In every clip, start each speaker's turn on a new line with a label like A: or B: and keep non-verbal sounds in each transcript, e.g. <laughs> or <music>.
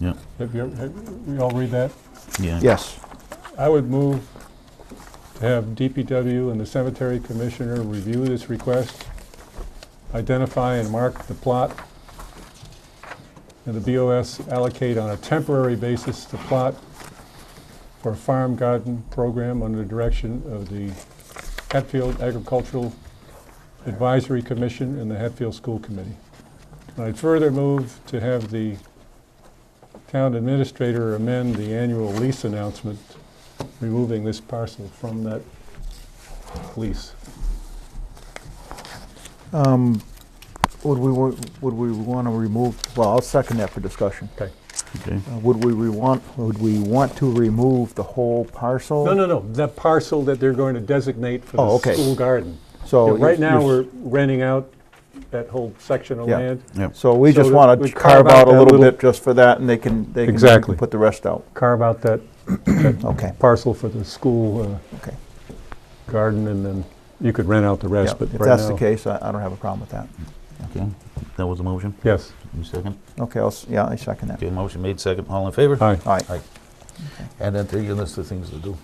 A: Yeah,
B: Have you, ever- have, we all read that?
A: yeah.
C: Yes.
B: I would move to have DPW and the cemetery commissioner review this request, identify and mark the plot, and the BOS allocate on a temporary basis the plot for a farm garden program under the direction of the Hatfield Agricultural Advisory Commission and the Hatfield School Committee. And I'd further move to have the town administrator amend the annual lease announcement, removing this parcel from that lease.
C: Um, Would we, wa- would we want to remove, well, I'll second that for discussion.
B: Okay.
A: Okay.
C: Uh, Would we re- want, would we want to remove the whole parcel?
B: No, no, no, that parcel that they're going to designate for
C: Oh,
B: the
C: okay.
B: school garden.
C: So. you're-
B: Right now, we're
C: you're-
B: renting out that whole section of
C: Yeah.
B: land,
A: Yep.
C: So we
B: so
C: just
B: that
C: want
B: we
C: to carve out a
B: that
C: little
B: little-
C: bit just for that, and they can, they can.
B: Exactly.
C: Put the rest out.
B: carve out that
C: Okay,
B: parcel for the school
C: okay.
B: uh, garden, and then you could rent out the
C: Yeah,
B: rest,
C: If
B: but right now...
C: that's the case, I I don't have a problem with that.
A: Okay. That was the motion.
B: Yes,
A: You second?
C: Okay, I'll, s- yeah, I second that.
A: Okay, motion made, second. All in favor?
B: aye.
C: All right,
A: Aye. And then take your list of things to do.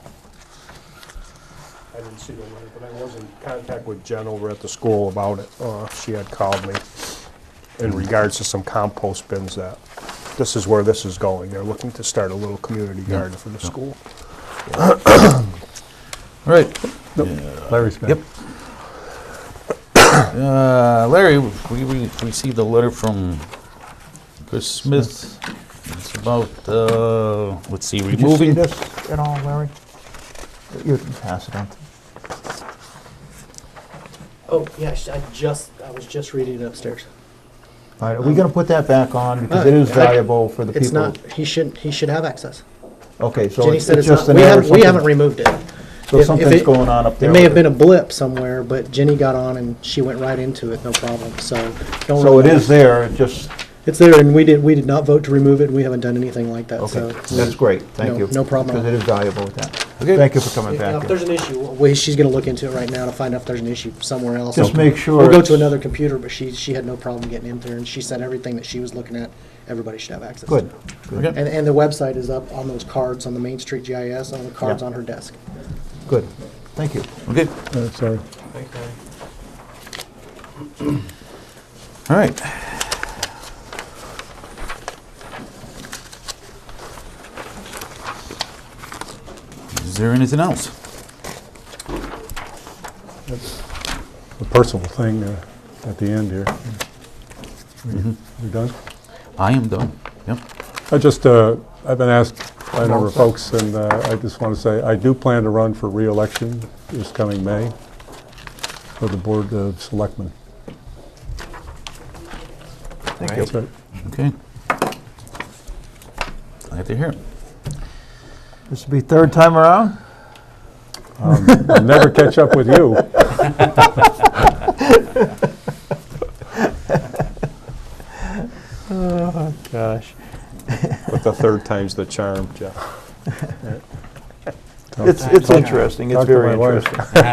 D: I didn't see the letter, but I was in contact with Jen over at the school about it. Uh, She had called me in regards to some compost bins that, this is where this is going. They're looking to start a little community garden for the school.
A: All right.
B: Larry's got it.
A: Yep. Uh, Larry, we re- received a letter from Chris Smith. It's about, uh, let's see,
C: Did you see
A: removing.
C: this at all, Larry? You can pass it on.
E: Oh, yeah, I sh- I just, I was just reading it upstairs.
C: All right, are we going to put that back on because it is valuable for the people?
E: It's not, he shouldn't, he should have access.
C: Okay, so
E: Jenny
C: it's
E: said
C: it's
E: it's
C: just
E: not,
C: an
E: we
C: error.
E: haven't, we
C: something-
E: haven't removed it.
C: So
E: if- if
C: something's
E: it-
C: going on up there.
E: It may have
C: with
E: been a blip somewhere, but Jenny got on and she went right into it, no problem, so. don't
C: So it
E: worry.
C: is there, it just,
E: It's there, and we did, we did not vote to remove it, and we haven't done anything like that, so.
C: okay, that's great, thank
E: No-
C: you.
E: no problem.
C: Because it is valuable with that.
A: Okay.
C: Thank you for coming
E: Now,
C: back.
E: If
C: here.
E: there's an issue, well, she's gonna look into it right now to find out if there's an issue somewhere else.
C: Just make sure.
E: We'll go to
C: it's-
E: another computer, but she, she had no problem getting in there, and she said everything that she was looking at, everybody should have access.
C: Good. good,
A: Okay.
E: And, and the website is up on those cards on the Main Street GIS, on the cards
C: Yeah.
E: on her desk.
C: Good, thank you.
A: Okay,
B: Uh, Sorry.
A: all right. Is there anything else?
B: A personal thing uh, at the end here.
C: Mm-hmm.
B: We're done?
A: I am done. Yep.
B: I just, uh, I've been asked by a number of folks, and uh, I just want to say, I do plan to run for reelection this coming May for the Board of Selectmen.
C: Thank
B: That's
C: you.
B: right.
A: Okay. Glad to hear it.
C: This will be third time around?
B: I'll never catch up with
C: <laughs>
B: you.
C: Gosh.
D: But the third time's the charm, Jeff.
C: It's, it's interesting, it's
B: Talk to my
C: very
B: wife.
C: interesting.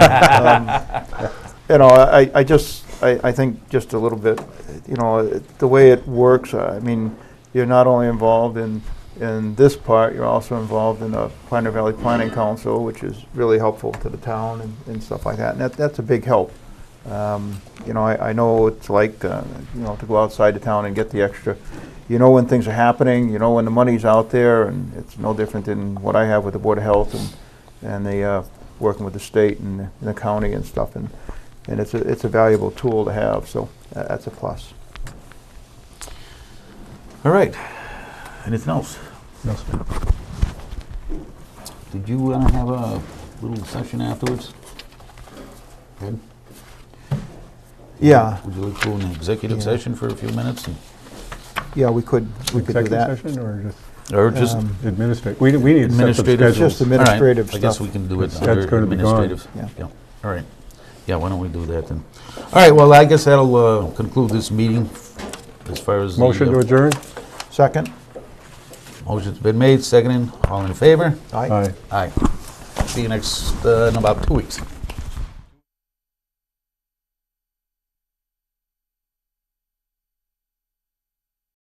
C: Um, You know, I, I just, I, I think just a little bit, you know, it- the way it works, I mean, you're not only involved in, in this part, you're also involved in the Pioneer Valley Planning Council, which is really helpful to the town and, and stuff like that, and that, that's a big help. Um, You know, I, I know it's like, uh, you know, to go outside the town and get the extra, you know when things are happening, you know when the money's out there, and it's no different than what I have with the Board of Health and, and the, uh, working with the state and the- and the county and stuff, and, and it's a, it's a valuable tool to have, so tha- that's a plus.
A: All right. Anything else?
B: No, sir.
A: Did you uh, have a little session afterwards? Ed?
C: Yeah,
A: Would you like to go in executive
C: Yeah.
A: session for a few minutes? and-
C: yeah, we could, we could do
B: Executive
C: that.
B: session or just
A: Or just
C: Um,
B: administrative? We we need to set some
A: administrative?
B: schedules.
C: Just
A: All right,
C: administrative
A: I guess
C: stuff.
A: we can do it
B: That's
A: under
B: gonna be gone.
A: administrative.
C: Yeah.
A: Yeah, all right. Yeah, why don't we do that then? All right, well, I guess that'll uh, conclude this meeting as far as. the,
B: Motion
A: uh,
B: to adjourn?
C: Second?
A: Motion's been made, seconded. All in favor?
C: Aye.
B: Aye.
A: Aye. See you next, uh, in about two weeks.